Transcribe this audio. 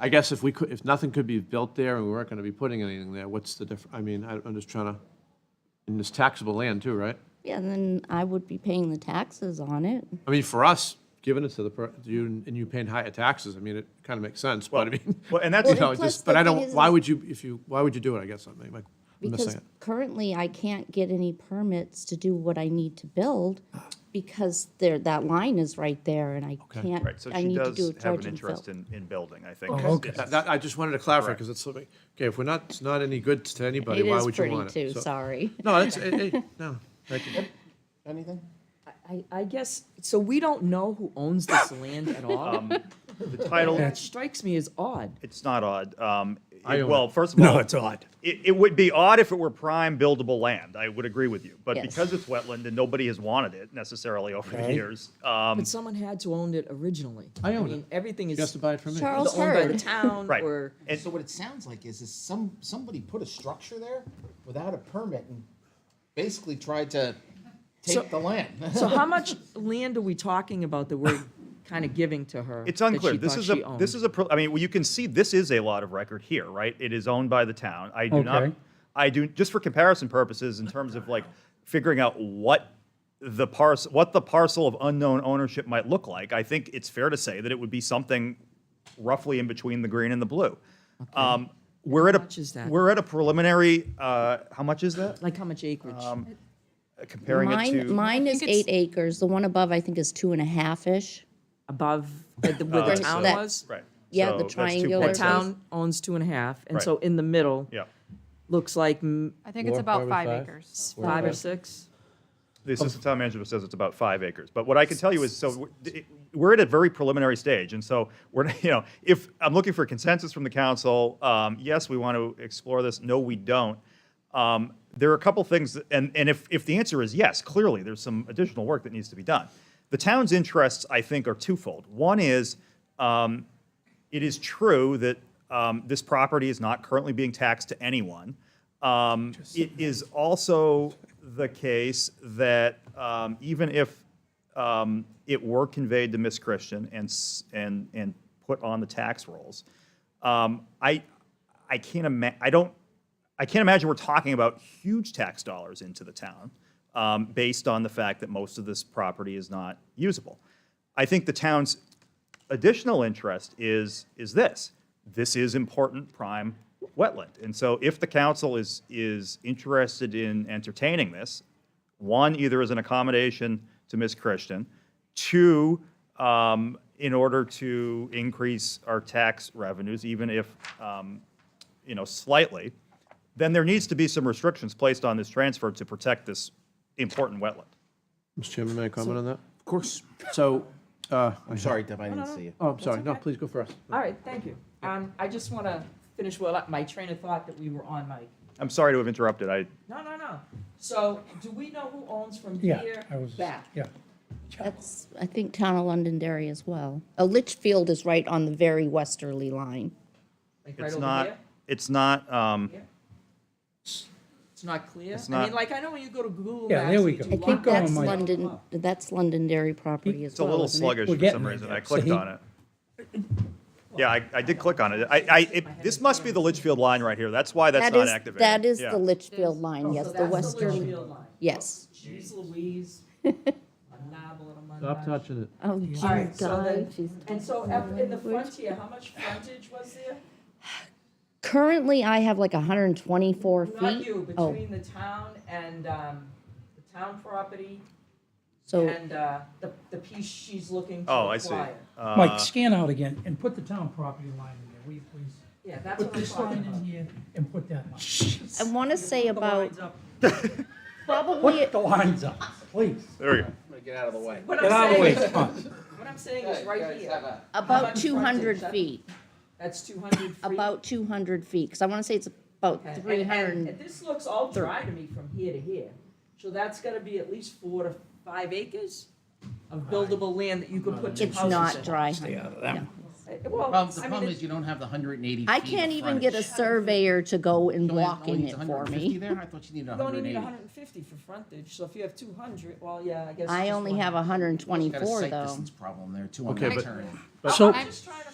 I guess if we could, if nothing could be built there and we weren't going to be putting anything there, what's the diff, I mean, I- I'm just trying to, and it's taxable land too, right? Yeah, then I would be paying the taxes on it. I mean, for us, giving it to the, per- you and you paying higher taxes, I mean, it kind of makes sense, but I mean. Well, and that's- you know, Well, and plus just- But I the thing don't, is- why would you, if you, why would you do it, I guess, I'm like, I'm missing Because it. currently I can't get any permits to do what I need to build because there, that line is right there and I can't, Right, so I she need to do a does have dredge an and fill. interest in, in building, I Oh, think. okay. It's- That, that- I just wanted to clarify, because it's, something- okay, if we're not, it's not any good to anybody, It why is would you pretty want it? too, So- sorry. No, it's, it, it- no, thank you. Anything? I, I guess, so we don't know who owns this land at Um, all? The title, That strikes me as odd. it's not odd. Um, I own Well, it. first of all. No, it's odd. It, it would be odd if it were prime buildable land. I would agree with you. But Yes. because it's wetland and nobody has wanted it necessarily over the Right. years, um, But someone had to own it originally. I own mean, it. Everything is. You have to buy it from me. either Charles Owned by the Heard. town Right. or. And- So what it sounds like is, is some, somebody put a structure there without a permit and basically tried to So- take the land. So how much land are we talking about that we're kind of giving to her? it's that she unclear. This thought is she a, owned? this is a, pro- I mean, well, you can see this is a lot of record here, right? It is owned by the town. I do not, Okay. I do, just for comparison purposes, in terms of like figuring out what the parcel, what the parcel of unknown ownership might look like, I think it's fair to say that it would be something roughly in between the green and the blue. Um, We're at a, much is that? we're at a preliminary, uh, how much is that? Like how much acreage? Um, Comparing it to. Mine, mine is eight acres. The one above I think is two and a half-ish. Above uh, the- where the Uh, so- town That- was? Right. Yeah, So the that's two triangular The points. place. town owns two and a half, and Right. so in the middle. Yeah. Looks like mm, I think it's Four, about probably five five. acres. five or six. The assistant town manager says it's about five acres, but what I can tell you is, so we're- we're at a very preliminary stage, and so we're, you know, if, I'm looking for consensus from the council, um, yes, we want to explore this, no, we don't. Um, There are a couple things, that- and, and if, if the answer is yes, clearly, there's some additional work that needs to be done. The town's interests, I think, are twofold. One is, um, it is true that um, this property is not currently being taxed to anyone. Um, It is also the case that um, even if um, it were conveyed to Miss Christian and, s- and, and put on the tax rolls, um, I, I can't ima, I don't, I can't imagine we're talking about huge tax dollars into the town, um, based on the fact that most of this property is not usable. I think the town's additional interest is, is this. This is important prime wetland. And so if the council is, is interested in entertaining this, one, either as an accommodation to Ms. Christian, two, um, in order to increase our tax revenues, even if, um, you know, slightly, then there needs to be some restrictions placed on this transfer to protect this important wetland. Mr. Chairman, may I comment on that? Of course. So, uh, I'm sorry. Sorry, Deb, I didn't see you. Oh, I'm sorry. No, please go first. All right, thank you. Um, I just want to finish well up my train of thought that we were on, Mike. I'm sorry to have interrupted. I, No, no, no. So do we know who owns from Yeah, here I was, back? yeah. That's, I think, town of Londonderry as well. Uh, Litchfield is right on the very westerly line. Like right it's over not, here? it's not, um, Yeah. It's not clear? It's I not- mean, like, I know when you go to Google Yeah, Maps. there we you go. do I Keep lot think going, that's lines. Mike. London, that's Londonderry property as It's a well, little isn't it? sluggish We're for getting some there. reason. I So clicked he- on it. Yeah, I, I did click on it. I, I, it- this must be the Litchfield line right here. That's why that's That not is- activated. That is Yeah. the Litchfield line, yes, Oh, So the that's western, Litchfield line. yes. Jeez Louise. A novel and a Stop montage. touching it. Oh, All right, so then, she's and so up in the frontier, how much frontage was there? Currently, I have like hundred and twenty-four feet. Not you, Oh, between the town and, um, the town property so, and, uh, the, the piece she's looking to acquire. Oh, I see. Uh, Mike, scan out again and put the town property line in there, will you please? Yeah, that's Put what I'm this talking line about. in here and put that line. I want to say Put the about lines up. probably, Put the lines up, please. There we go. I'm gonna get out of the way. What Get out of I'm the way, saying, come on. what I'm saying is right here, about much two hundred frontage? That- feet, that's two hundred feet. about two hundred feet, because I want to say it's about Okay, and- three and- hundred. and This looks all dry to me from here to here, so that's gonna be at least four to five acres of buildable land that you could put two It's houses in. not dry. No. Uh, Well, Problem, the I mean, problem is it- you don't have the hundred and eighty feet. Oh, I of can't even get a frontage. surveyor to go and You only- walk only in needs it for 150 me. there? I thought you needed you hundred only and need eighty. hundred and fifty for frontage, so if you have two hundred, well, yeah, I guess. it's I just only one. have hundred and Got a twenty-four sight though. distance problem there too on Okay, that but- turn. I'm- So- I'm just trying to